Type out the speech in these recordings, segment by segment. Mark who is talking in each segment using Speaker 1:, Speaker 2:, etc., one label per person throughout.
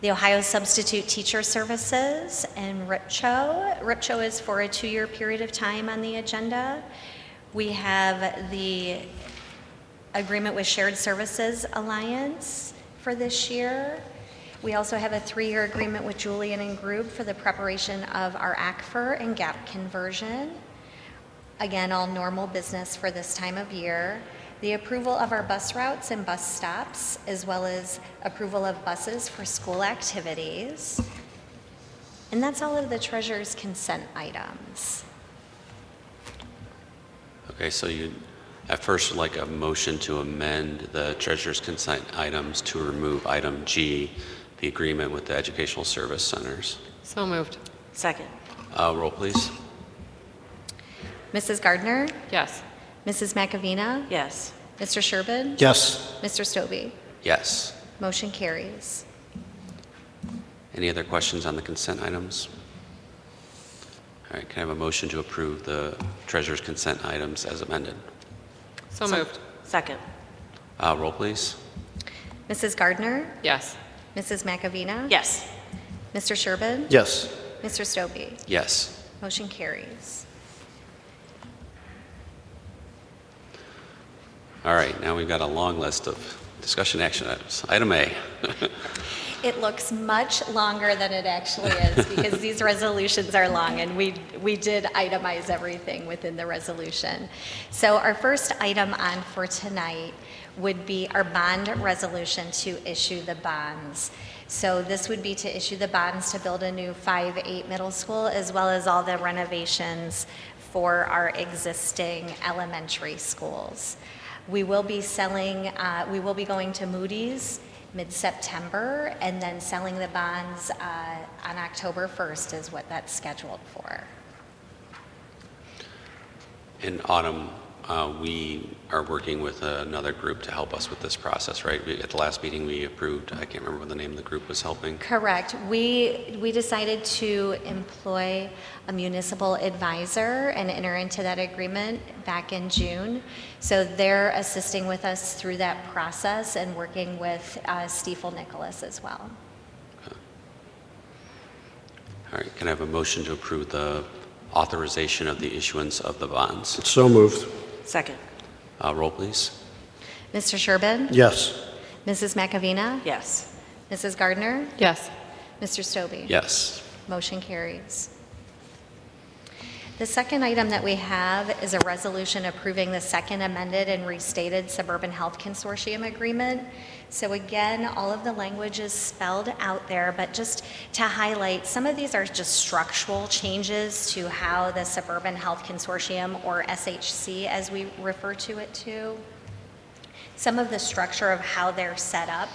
Speaker 1: the Ohio Substitute Teacher Services, and RIPCHO. RIPCHO is for a two-year period of time on the agenda. We have the agreement with Shared Services Alliance for this year. We also have a three-year agreement with Julian and Group for the preparation of our ACFR and GAP conversion. Again, all normal business for this time of year. The approval of our bus routes and bus stops, as well as approval of buses for school activities. And that's all of the treasurer's consent items.
Speaker 2: Okay, so you, at first, would like a motion to amend the treasurer's consent items to remove item G, the agreement with the educational service centers.
Speaker 3: So moved.
Speaker 4: Second.
Speaker 2: Uh, Roll, please.
Speaker 1: Mrs. Gardner,
Speaker 3: Yes.
Speaker 1: Mrs. McAvina,
Speaker 4: Yes.
Speaker 1: Mr. Sherbin,
Speaker 5: Yes.
Speaker 1: Mr. Stobie.
Speaker 2: Yes.
Speaker 1: Motion carries.
Speaker 2: Any other questions on the consent items? All right, can I have a motion to approve the treasurer's consent items as amended?
Speaker 3: So moved.
Speaker 4: Second.
Speaker 2: Uh, Roll, please.
Speaker 1: Mrs. Gardner,
Speaker 3: Yes.
Speaker 1: Mrs. McAvina.
Speaker 4: Yes.
Speaker 1: Mr. Sherbin.
Speaker 5: Yes.
Speaker 1: Mr. Stobie.
Speaker 2: Yes.
Speaker 1: Motion carries.
Speaker 2: All right, now we've got a long list of discussion action items. Item A.
Speaker 1: It looks much longer than it actually is because these resolutions are long and we, we did itemize everything within the resolution. So our first item on for tonight would be our bond resolution to issue the bonds. So this would be to issue the bonds to build a new 5-8 middle school as well as all the renovations for our existing elementary schools. We will be selling, uh, we will be going to Moody's mid-September and then selling the bonds uh, on October 1st is what that's scheduled for.
Speaker 2: In autumn, uh, we are working with another group to help us with this process, right? We- At the last meeting, we approved, I can't remember what the name of the group was helping.
Speaker 1: Correct. We, we decided to employ a municipal advisor and enter into that agreement back in June. So they're assisting with us through that process and working with uh, Stiefel Nicholas as well.
Speaker 2: All right, can I have a motion to approve the authorization of the issuance of the bonds?
Speaker 5: So moved.
Speaker 4: Second.
Speaker 2: Uh, Roll, please.
Speaker 1: Mr. Sherbin?
Speaker 5: Yes.
Speaker 1: Mrs. McAvina?
Speaker 4: Yes.
Speaker 1: Mrs. Gardner?
Speaker 3: Yes.
Speaker 1: Mr. Stobie?
Speaker 2: Yes.
Speaker 1: Motion carries. The second item that we have is a resolution approving the second amended and restated Suburban Health Consortium Agreement. So again, all of the language is spelled out there, but just to highlight, some of these are just structural changes to how the Suburban Health Consortium, or SHC as we refer to it to, some of the structure of how they're set up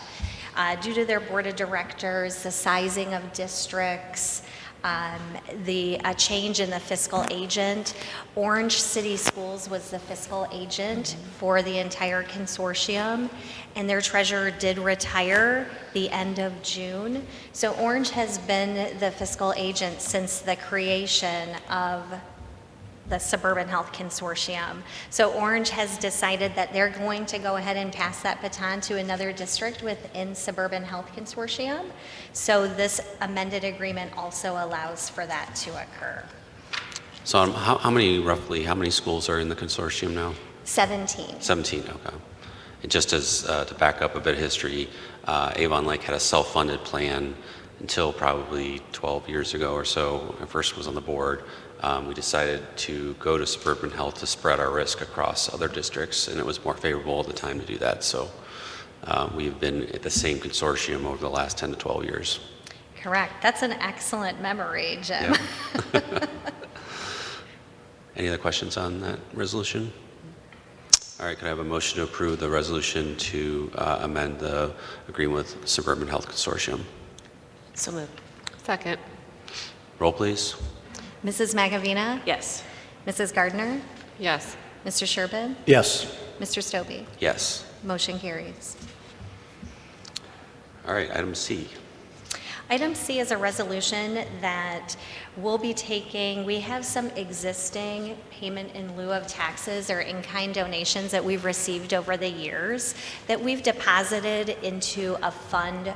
Speaker 1: uh, due to their board of directors, the sizing of districts, um, the a change in the fiscal agent. Orange City Schools was the fiscal agent for the entire consortium, and their treasurer did retire the end of June. So Orange has been the fiscal agent since the creation of the Suburban Health Consortium. So Orange has decided that they're going to go ahead and pass that baton to another district within Suburban Health Consortium. So this amended agreement also allows for that to occur.
Speaker 2: So um, how how many, roughly, how many schools are in the consortium now?
Speaker 1: 17.
Speaker 2: 17, okay. And just as, uh, to back up a bit of history, uh, Avon Lake had a self-funded plan until probably 12 years ago or so, when I first was on the board. Um, We decided to go to suburban health to spread our risk across other districts, and it was more favorable at the time to do that. So uh, we've been at the same consortium over the last 10 to 12 years.
Speaker 1: Correct. That's an excellent memory, Jim.
Speaker 2: Yeah. Any other questions on that resolution? All right, could I have a motion to approve the resolution to uh, amend the agreement with Suburban Health Consortium?
Speaker 4: So moved.
Speaker 3: Second.
Speaker 2: Roll, please.
Speaker 1: Mrs. Magavina?
Speaker 4: Yes.
Speaker 1: Mrs. Gardner?
Speaker 3: Yes.
Speaker 1: Mr. Sherbin?
Speaker 5: Yes.
Speaker 1: Mr. Stobie?
Speaker 2: Yes.
Speaker 1: Motion carries.
Speaker 2: All right, item C.
Speaker 1: Item C is a resolution that we'll be taking, we have some existing payment in lieu of taxes or in-kind donations that we've received over the years that we've deposited into a fund